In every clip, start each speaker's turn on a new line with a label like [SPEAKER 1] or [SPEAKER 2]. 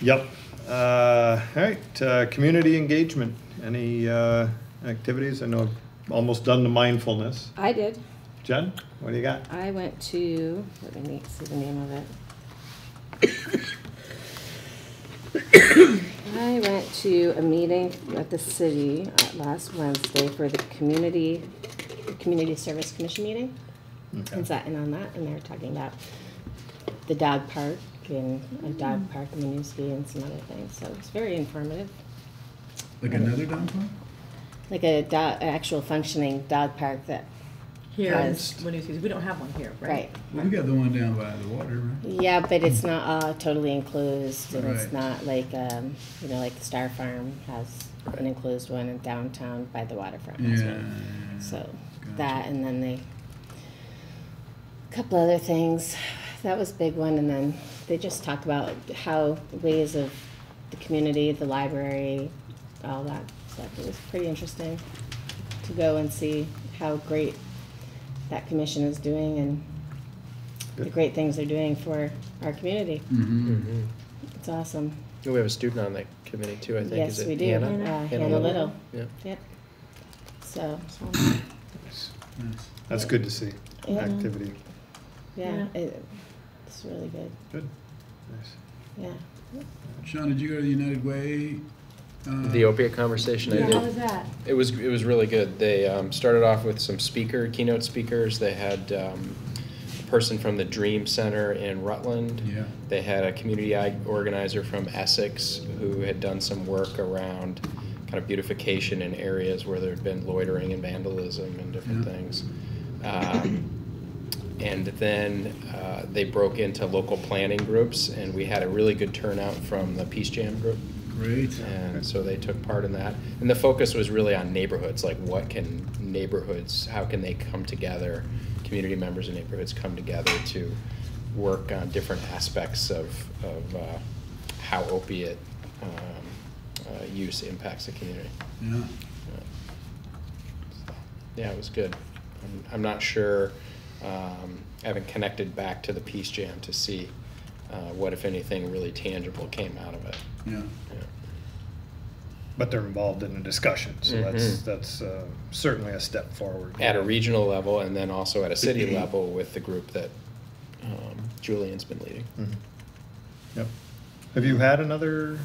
[SPEAKER 1] Yep. Uh, all right. Uh, community engagement. Any uh, activities? I know I've almost done the mindfulness.
[SPEAKER 2] I did.
[SPEAKER 1] Jen, what do you got?
[SPEAKER 2] I went to, let me see the name of it. I went to a meeting at the city uh, last Wednesday for the community, the Community Service Commission meeting.
[SPEAKER 1] Okay.
[SPEAKER 2] And sat in on that, and they were talking about the dog park and a dog park in Winooski and some other things, so it's very informative.
[SPEAKER 3] Like another downtown?
[SPEAKER 2] Like a do, an actual functioning dog park that,
[SPEAKER 4] Here,
[SPEAKER 2] Yes.
[SPEAKER 4] when you see, we don't have one here, right?
[SPEAKER 2] right,
[SPEAKER 3] Well, we got the one down by the water, right?
[SPEAKER 2] Yeah, but it's not all totally enclosed, and it's
[SPEAKER 3] Right.
[SPEAKER 2] not like, um, you know, like Star Farm has an enclosed one in downtown by the waterfront. has
[SPEAKER 3] Yeah.
[SPEAKER 2] one. So
[SPEAKER 3] Gotcha.
[SPEAKER 2] that, and then they, a couple other things, that was a big one, and then they just talk about how ways of the community, the library, all that stuff. It was pretty interesting to go and see how great that commission is doing and the
[SPEAKER 1] Good.
[SPEAKER 2] great things they're doing for our community.
[SPEAKER 3] Mm-hmm.
[SPEAKER 2] It's awesome.
[SPEAKER 5] We have a student on that committee too, I think.
[SPEAKER 2] Yes,
[SPEAKER 5] Is it
[SPEAKER 2] we do.
[SPEAKER 5] Hannah?
[SPEAKER 2] Uh, Hannah Little.
[SPEAKER 5] Yeah.
[SPEAKER 2] Yep. So,
[SPEAKER 3] Nice.
[SPEAKER 1] That's good to see.
[SPEAKER 2] Yeah.
[SPEAKER 1] Activity.
[SPEAKER 2] yeah,
[SPEAKER 4] Yeah.
[SPEAKER 2] it- it's really good.
[SPEAKER 1] Good. Nice.
[SPEAKER 2] Yeah.
[SPEAKER 3] Sean, did you go to the United Way? uh,
[SPEAKER 5] The opiate conversation I did.
[SPEAKER 4] that?
[SPEAKER 5] It was, it was really good. They um, started off with some speaker, keynote speakers. They had um, a person from the Dream Center in Rutland.
[SPEAKER 3] Yeah.
[SPEAKER 5] They had a community ag- organizer from Essex who had done some work around kind of beautification in areas where there had been loitering and vandalism and different
[SPEAKER 3] Yeah.
[SPEAKER 5] things. Um, and then uh, they broke into local planning groups, and we had a really good turnout from the Peace Jam group.
[SPEAKER 3] Great.
[SPEAKER 5] And so they took part in that. And the focus was really on neighborhoods, like what can neighborhoods, how can they come together, community members of neighborhoods come together to work on different aspects of, of uh, how opiate um, uh, use impacts the community.
[SPEAKER 3] Yeah.
[SPEAKER 5] So, Yeah, it was good. I'm, I'm not sure, um, I haven't connected back to the Peace Jam to see uh, what, if anything, really tangible came out of it.
[SPEAKER 3] Yeah.
[SPEAKER 5] Yeah.
[SPEAKER 1] But they're involved in the discussion, so that's
[SPEAKER 5] Mhm.
[SPEAKER 1] that's uh, certainly a step forward.
[SPEAKER 5] at a regional level and then also at a city level with the group that um, Julian's been leading.
[SPEAKER 1] Mhm. Yep. Have you had another?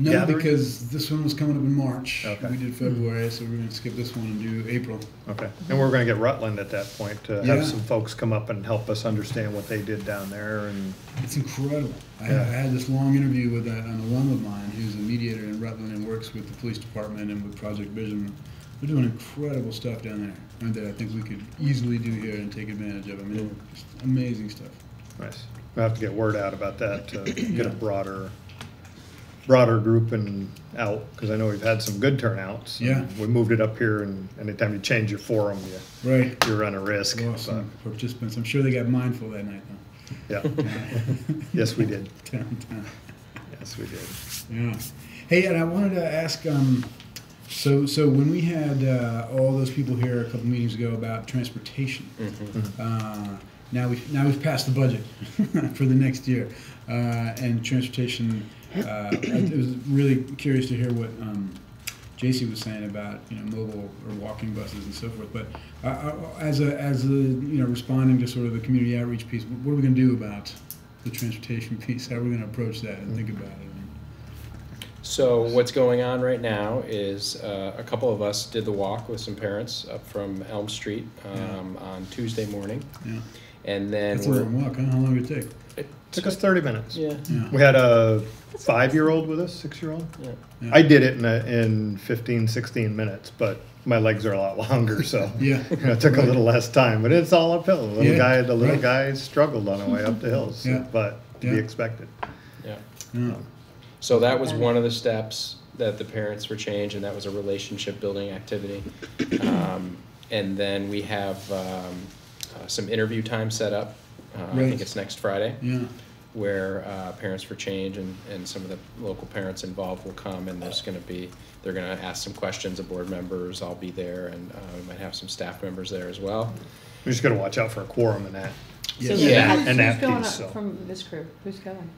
[SPEAKER 3] No,
[SPEAKER 1] Gathering?
[SPEAKER 3] because this one was coming up in March.
[SPEAKER 1] Okay.
[SPEAKER 3] We did February, so we're going to skip this one and do April.
[SPEAKER 1] Okay. And we're going to get Rutland at that point to
[SPEAKER 3] Yeah.
[SPEAKER 1] have some folks come up and help us understand what they did down there and
[SPEAKER 3] It's incredible. I,
[SPEAKER 1] Yeah.
[SPEAKER 3] I had this long interview with a, an alum of mine who's a mediator in Rutland and works with the police department and with Project Vision. They're doing incredible stuff down there I mean, that I think we could easily do here and take advantage of. I mean, it's amazing stuff.
[SPEAKER 1] Nice. We'll have to get word out about that to get a broader, broader group and out, because I know we've had some good turnouts.
[SPEAKER 3] Yeah.
[SPEAKER 1] We moved it up here and anytime you change your forum, you,
[SPEAKER 3] Right.
[SPEAKER 1] you run a risk.
[SPEAKER 3] Lost some participants. I'm sure they got mindful that night,
[SPEAKER 1] but, Yeah.
[SPEAKER 3] though.
[SPEAKER 1] Yes, we did.
[SPEAKER 3] Downtown.
[SPEAKER 1] Yes, we did.
[SPEAKER 3] Yeah. Hey, and I wanted to ask. Um, so, so when we had uh, all those people here a couple meetings ago about transportation, uh, now we have now we've passed the budget for the next year, uh, and transportation. Uh, I was really curious to hear what um, JC was saying about you know mobile or walking buses and so forth. But uh, uh, as a as a you know responding to sort of the community outreach piece, what are we going to do about the transportation piece? How are we going to approach that and think about it?
[SPEAKER 5] So what's going on right now is uh, a couple of us did the walk with some parents up from Elm Street um, on Tuesday morning.
[SPEAKER 3] Yeah.
[SPEAKER 5] And then
[SPEAKER 3] That's a
[SPEAKER 5] we're.
[SPEAKER 3] long walk, huh? How long did it take?
[SPEAKER 1] Took us thirty minutes.
[SPEAKER 5] Yeah.
[SPEAKER 3] Yeah.
[SPEAKER 1] We had a five-year-old with us, six-year-old.
[SPEAKER 5] yeah.
[SPEAKER 3] Yeah.
[SPEAKER 1] I did it in, a- in fifteen, sixteen minutes, but my legs are a lot longer, so.
[SPEAKER 3] Yeah.
[SPEAKER 1] You know, it took a little less time, but it's all uphill. The little
[SPEAKER 3] Yeah,
[SPEAKER 1] guy, the little
[SPEAKER 3] right.
[SPEAKER 1] guy struggled on the way up the hills,
[SPEAKER 3] Yeah.
[SPEAKER 1] but to be
[SPEAKER 3] Yeah.
[SPEAKER 1] expected.
[SPEAKER 5] yeah.
[SPEAKER 3] Yeah.
[SPEAKER 5] So that was one of the steps that the parents were changed, and that was a relationship building activity. Um, and then we have um, uh, some interview time set up. Uh, I
[SPEAKER 3] Right.
[SPEAKER 5] think it's next Friday.
[SPEAKER 3] Yeah.
[SPEAKER 5] where uh, Parents for Change and, and some of the local parents involved will come, and there's gonna be, they're gonna ask some questions of board members, I'll be there, and uh, we might have some staff members there as well.
[SPEAKER 1] We just gotta watch out for a quorum in that.
[SPEAKER 3] Yes.
[SPEAKER 1] Yeah.
[SPEAKER 4] Who's
[SPEAKER 1] And that
[SPEAKER 4] going
[SPEAKER 1] piece,
[SPEAKER 4] up
[SPEAKER 1] so.
[SPEAKER 4] from this group? Who's going?